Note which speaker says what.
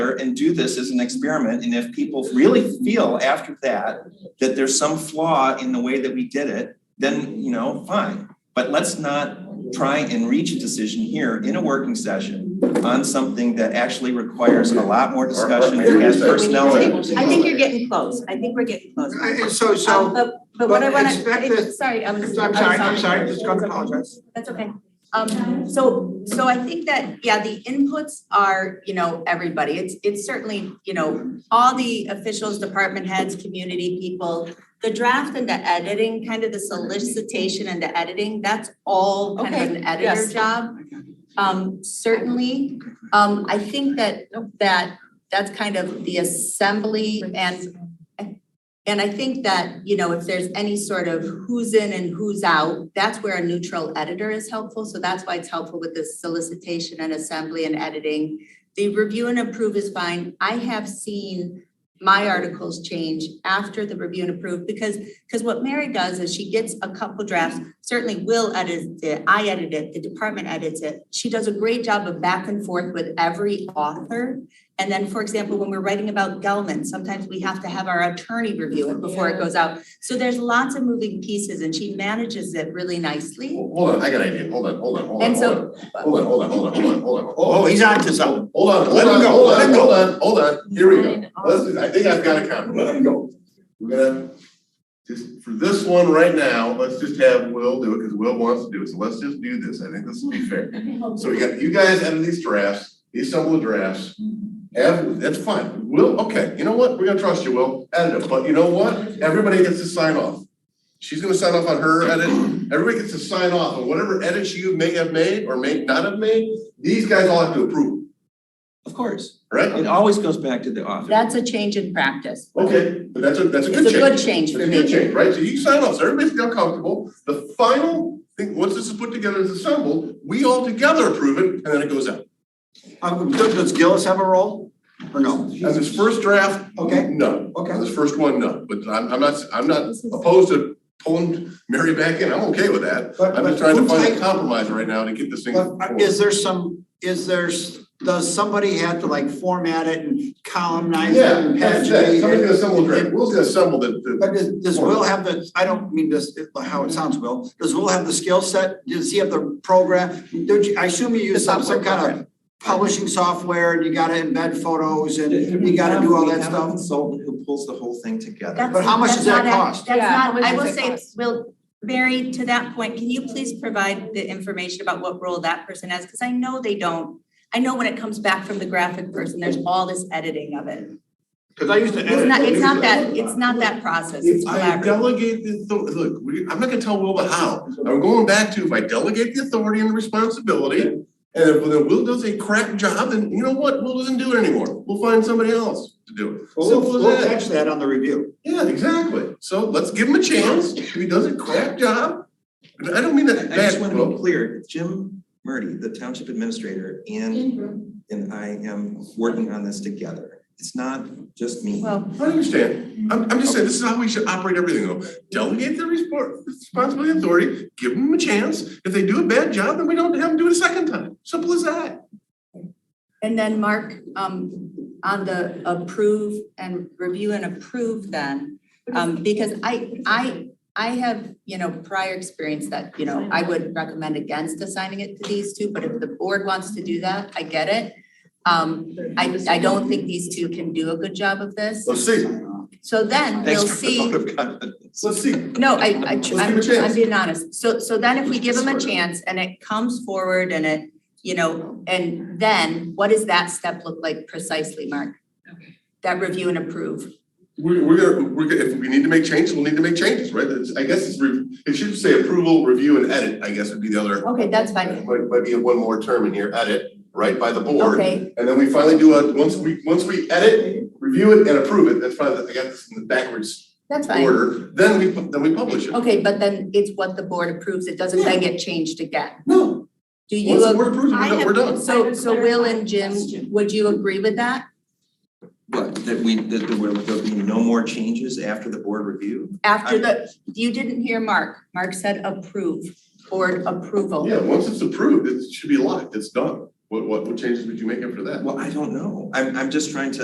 Speaker 1: here and do this as an experiment, and if people really feel after that that there's some flaw in the way that we did it, then, you know, fine. But let's not try and reach a decision here in a working session on something that actually requires a lot more discussion and has personnel. in it.
Speaker 2: I think you're getting close, I think we're getting close.
Speaker 3: I- I- So,
Speaker 2: Um,
Speaker 3: so,
Speaker 2: but, but what I
Speaker 3: but
Speaker 2: wanna,
Speaker 3: expect
Speaker 2: it-
Speaker 3: that-
Speaker 2: sorry, I'm,
Speaker 3: I'm
Speaker 2: I'm
Speaker 3: sorry, I'm sorry, just gonna apologize.
Speaker 2: That's okay. Um, so, so I think that, yeah, the inputs are, you know, everybody. It's, it's certainly, you know, all the officials, department heads, community people. The draft and the editing, kind of the solicitation and the editing, that's all kind of an editor
Speaker 4: yes.
Speaker 2: job. Um, certainly, um, I think that, that, that's kind of the assembly and and I think that, you know, if there's any sort of who's in and who's out, that's where a neutral editor is helpful. So that's why it's helpful with the solicitation and assembly and editing. The review and approve is fine. I have seen my articles change after the review and approve because, because what Mary does is she gets a couple drafts, certainly Will edits it, I edit it, the department edits it. She does a great job of back and forth with every author. And then, for example, when we're writing about Gelman, sometimes we have to have our attorney review it before it goes out. So there's lots of moving pieces and she manages it really nicely.
Speaker 5: Hold on, I got an idea, hold on, hold on, hold on,
Speaker 2: And
Speaker 5: hold
Speaker 2: so-
Speaker 5: on, hold on, hold on, hold on, hold on, hold on.
Speaker 3: Oh, he's on to something.
Speaker 5: Hold on, hold
Speaker 3: Let him
Speaker 5: on,
Speaker 3: go,
Speaker 5: hold
Speaker 3: let
Speaker 5: on,
Speaker 3: him go.
Speaker 5: hold on, hold on, here we go. Let's, do- I think I've got a comment, let him go. We're gonna, just for this one right now, let's just have Will do it, because Will wants to do it, so let's just do this, I think this will be fair. So we got, you guys edit these drafts, these assemble the drafts. Ev, that's fine, Will, okay, you know what, we're gonna trust you, Will, edit it, but you know what, everybody gets to sign off. She's gonna sign off on her edit, everybody gets to sign off on whatever edits you may have made or may not have made, these guys all have to approve,
Speaker 1: Of course,
Speaker 5: right?
Speaker 1: it always goes back to the author.
Speaker 2: That's a change in practice.
Speaker 5: Okay, but that's a, that's a good
Speaker 2: It's a
Speaker 5: change.
Speaker 2: good change
Speaker 5: It's
Speaker 2: for
Speaker 5: a good
Speaker 2: me.
Speaker 5: change, right? So you sign off, so everybody's now comfortable. The final thing, once this is put together and assembled, we all together approve it, and then it goes out.
Speaker 3: Um, Does does Gillis have a role or no?
Speaker 5: As his first draft,
Speaker 3: Okay.
Speaker 5: no.
Speaker 3: Okay.
Speaker 5: As his first one, no. But I'm, I'm not, I'm not opposed to pulling Mary back in. I'm okay with that.
Speaker 3: But-
Speaker 5: I'm
Speaker 3: but
Speaker 5: just trying to
Speaker 3: who
Speaker 5: find a
Speaker 3: take-
Speaker 5: compromise right now to get this thing.
Speaker 3: But
Speaker 5: forward.
Speaker 3: uh, is there some, is there, s- does somebody have to like format it and columnize it
Speaker 5: Yeah,
Speaker 3: and
Speaker 5: that's
Speaker 3: paginate
Speaker 5: it.
Speaker 3: it?
Speaker 5: Somebody's gonna assemble a draft. Will's gonna assemble the, the,
Speaker 3: But does, does Will have the, I don't mean this, how it sounds, Will, does Will have the skill set, does he have the program? Don't you, I assume you use some, some kind of publishing software, and you gotta embed photos and you gotta do all that
Speaker 1: We have a
Speaker 3: stuff?
Speaker 1: Consultant who pulls the whole thing together.
Speaker 2: That's-
Speaker 3: But how much does
Speaker 2: that's
Speaker 3: that
Speaker 2: not a-
Speaker 3: cost?
Speaker 2: That's
Speaker 4: Yeah, how
Speaker 2: not,
Speaker 4: much
Speaker 2: I
Speaker 4: does
Speaker 2: will
Speaker 4: it
Speaker 2: say,
Speaker 4: cost?
Speaker 2: Will, Mary, to that point, can you please provide the information about what role that person has? Because I know they don't. I know when it comes back from the graphic person, there's all this editing of it.
Speaker 3: Cause I used to
Speaker 2: It's not, it's not that, it's not that process, it's
Speaker 5: If I
Speaker 2: collaborative.
Speaker 5: delegate the, author- look, we, I'm not gonna tell Will the how, I'm going back to if I delegate the authority and the responsibility. And if then Will does a crap job, then you know what, Will doesn't do it anymore, we'll find somebody else to do it.
Speaker 3: We'll,
Speaker 5: Simple as
Speaker 3: we'll
Speaker 5: that.
Speaker 3: catch that on the review.
Speaker 5: Yeah, exactly, so let's give him a chance, if he does a crap job, and I don't mean that
Speaker 1: I just
Speaker 5: bad,
Speaker 1: want to be
Speaker 5: Will.
Speaker 1: clear, Jim Murdy, the township administrator, and, and I am working on this together. It's not just me.
Speaker 2: Well,
Speaker 5: I understand, I'm, I'm just saying, this is how we should operate everything though, delegate the respon- responsibility and authority, give them a chance. If they do a bad job, then we don't have them do it a second time, simple as that.
Speaker 2: and then Mark, um, on the approve and review and approve then. Um, because I, I, I have, you know, prior experience that, you know, I would recommend against assigning it to these two, but if the board wants to do that, I get it. Um, I, I don't think these two can do a good job of this.
Speaker 5: Let's see,
Speaker 2: So then
Speaker 1: Thanks
Speaker 2: you'll
Speaker 1: for the
Speaker 2: see.
Speaker 1: vote of confidence.
Speaker 5: let's see.
Speaker 2: No, I, I,
Speaker 5: Let's give
Speaker 2: I'm,
Speaker 5: it a chance.
Speaker 2: I'm being honest. So, so then if we give them a
Speaker 5: Sort of.
Speaker 2: chance and it comes forward and it, you know, and then what does that step look like precisely, Mark? That review and approve.
Speaker 5: We're, we're gonna, we're gonna, if we need to make changes, we'll need to make changes, right? It's- I guess it's, re- it should say approval, review and edit, I guess would be the other.
Speaker 2: Okay, that's fine.
Speaker 5: Might, might be one more term in here, edit, right, by the board.
Speaker 2: Okay,
Speaker 5: And then we finally do a, once we, once we edit, review it and approve it, that's fine, I got this in the backwards
Speaker 2: that's fine.
Speaker 5: order, then we, pu- then we publish it.
Speaker 2: Okay, but then it's what the board approves. It doesn't then get changed again.
Speaker 5: No,
Speaker 2: Do
Speaker 5: once the
Speaker 2: you,
Speaker 5: board approves it, we're
Speaker 4: I
Speaker 5: done,
Speaker 4: have-
Speaker 5: we're done.
Speaker 2: so, so Will and Jim, would you agree with that
Speaker 1: But that we, that there will, there'll be no more changes after the board review?
Speaker 2: after the, you didn't hear Mark. Mark said approve, board approval.
Speaker 5: Yeah, once it's approved, it should be locked, it's done. What, what, what changes would you make after that?
Speaker 1: Well, I don't know. I'm, I'm just trying to